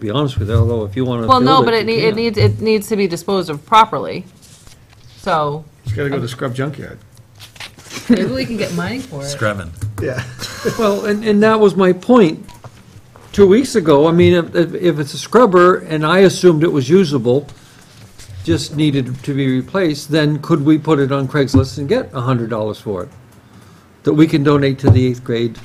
be honest with you, although if you want to. Well, no, but it nee- it needs, it needs to be disposed of properly, so. It's gotta go to scrub junkyard. Maybe we can get money for Screven. Yeah. Well, and, and that was my point two weeks ago. I mean, if, if- if it's a scrubber and I assumed it was usable, just needed to be replaced, then could we put it on Craigslist and get a hundred dollars for it? That we can donate to the eighth grade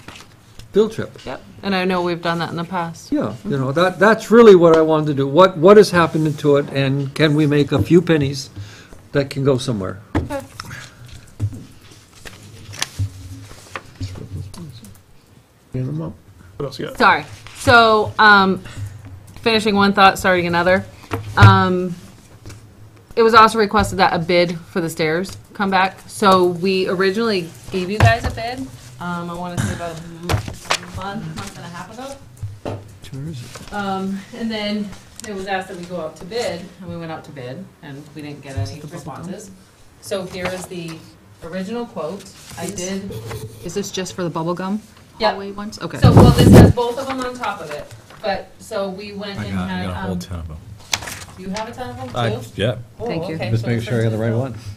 field trip? Yep, and I know we've done that in the past. Yeah, you know, that, that's really what I wanted to do. What, what has happened to it and can we make a few pennies that can go somewhere? Clean them up. What else you got? Sorry. So, um, finishing one thought, starting another. Um, it was also requested that a bid for the stairs come back. So we originally gave you guys a bid, um, I want to say about a m- month, month and a half ago. Um, and then it was asked that we go out to bid, and we went out to bid, and we didn't get any responses. So here is the original quote. I did Is this just for the bubble gum Yep. hallway ones? Okay. so, well, this has both of them on top of it, but, so we went I and got, I had, got a whole um, ton of them. do you have a ton of I- them too? Yeah, Oh, Thank you. okay, Just so the make sure I got the first right one's- one.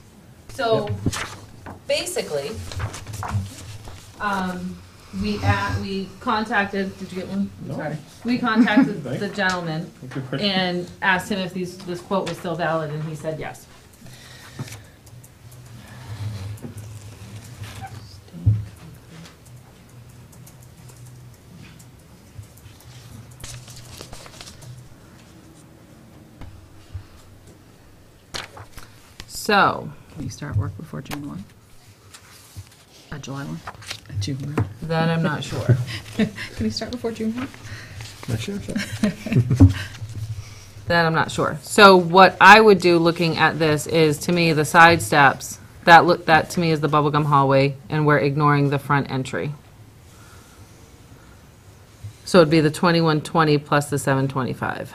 So, basically, um, we at, we contacted, did you get one? I'm No. Sorry. We contacted Thank- the gentleman Good question. and asked him if these, this quote was still valid, and he said yes. So, Can you start work before June 1? Or July 1? June 1. that I'm not sure. Can you start before June 1? Not sure. That I'm not sure. So what I would do, looking at this, is to me, the side steps, that look, that to me is the bubblegum hallway, and we're ignoring the front entry. So it'd be the 2120 plus the 725.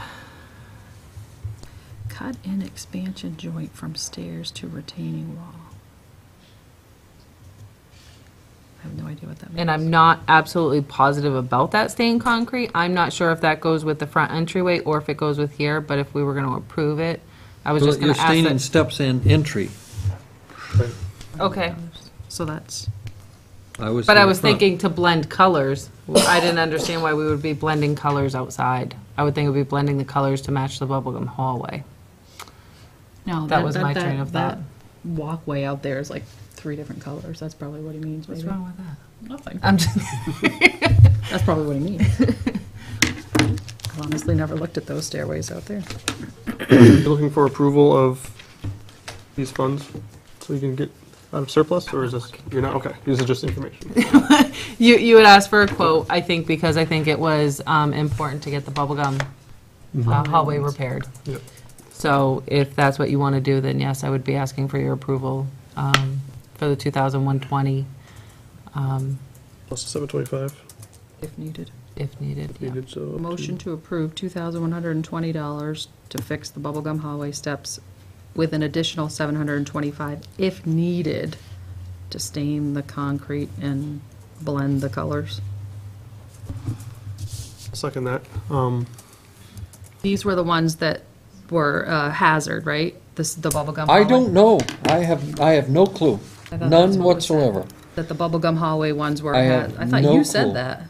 Cut in expansion joint from stairs to retaining wall. I have no idea what that means. And I'm not absolutely positive about that stained concrete. I'm not sure if that goes with the front entryway or if it goes with here, but if we were going to approve it, I was just going You're to ask staying in that. steps and entry. Okay. So that's, I was. But in I the was front. thinking to blend colors. I didn't understand why we would be blending colors outside. I would think it would be blending the colors to match the bubblegum hallway. no. That was my train of that thought. Walkway out there is like three different colors. That's probably what he means, maybe. with that? Nothing. I'm just, That's probably what he means. I've honestly never looked at those stairways out there. You looking for approval of these funds so you can get out of surplus, or is this, you're not, okay, this is just information. you, you had asked for a quote, I think, because I think it was um, important to get the bubblegum Mm-hmm. uh, hallway repaired. Yep. So if that's what you want to do, then yes, I would be asking for your approval um, for the 2120 um, Plus seven twenty-five If needed. if needed. yeah. needed, so. up to- Motion to approve $2,120 to fix the bubblegum hallway steps with an additional 725 if needed to stain the concrete and blend the colors. Second that, um, These were the ones that were uh, hazard, right? This, the bubblegum hallway? I don't know. I have, I have no clue. I thought that's None what was said. whatsoever. That the bubblegum hallway ones were, I ha- have I thought no you said clue. that.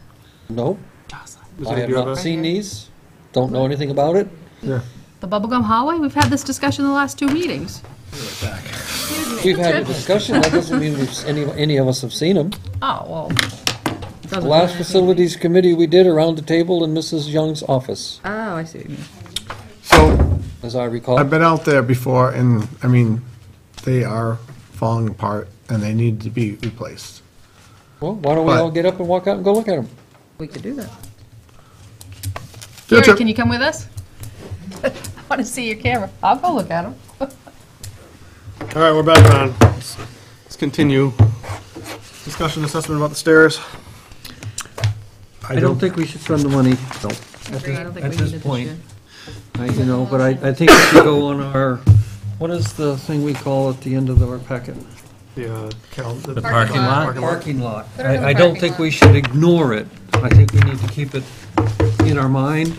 No, Jocelyn. does I have anybody have not a- seen these. Don't know anything about it. The bubblegum hallway? We've had this discussion the last two meetings. We've had a discussion. That doesn't mean we've, s- any, any of us have seen them. Oh, well. doesn't The mean last anything. facilities committee we did around the table in Mrs. Young's office, Oh, I see what you mean. So, as I recall. I've been out there before, and, I mean, they are falling apart, and they need to be replaced. Well, why don't we But- all get up and walk out and go look at them? We could do that. Field Gary, trip. can you come with us? I want to see your camera. I'll go look at them. All right, we're back on. Let's let's continue. Discussion assessment about the stairs. I don't think we should spend the money, no, I don't think at we this needed this point. year. I- you know, but I, I think we should go on our, what is the thing we call at the end of our packet? The, uh, cal- the- the parking lot. Parking lot. it in the I, I don't parking think lot. we should ignore it. I think we need to keep it in our mind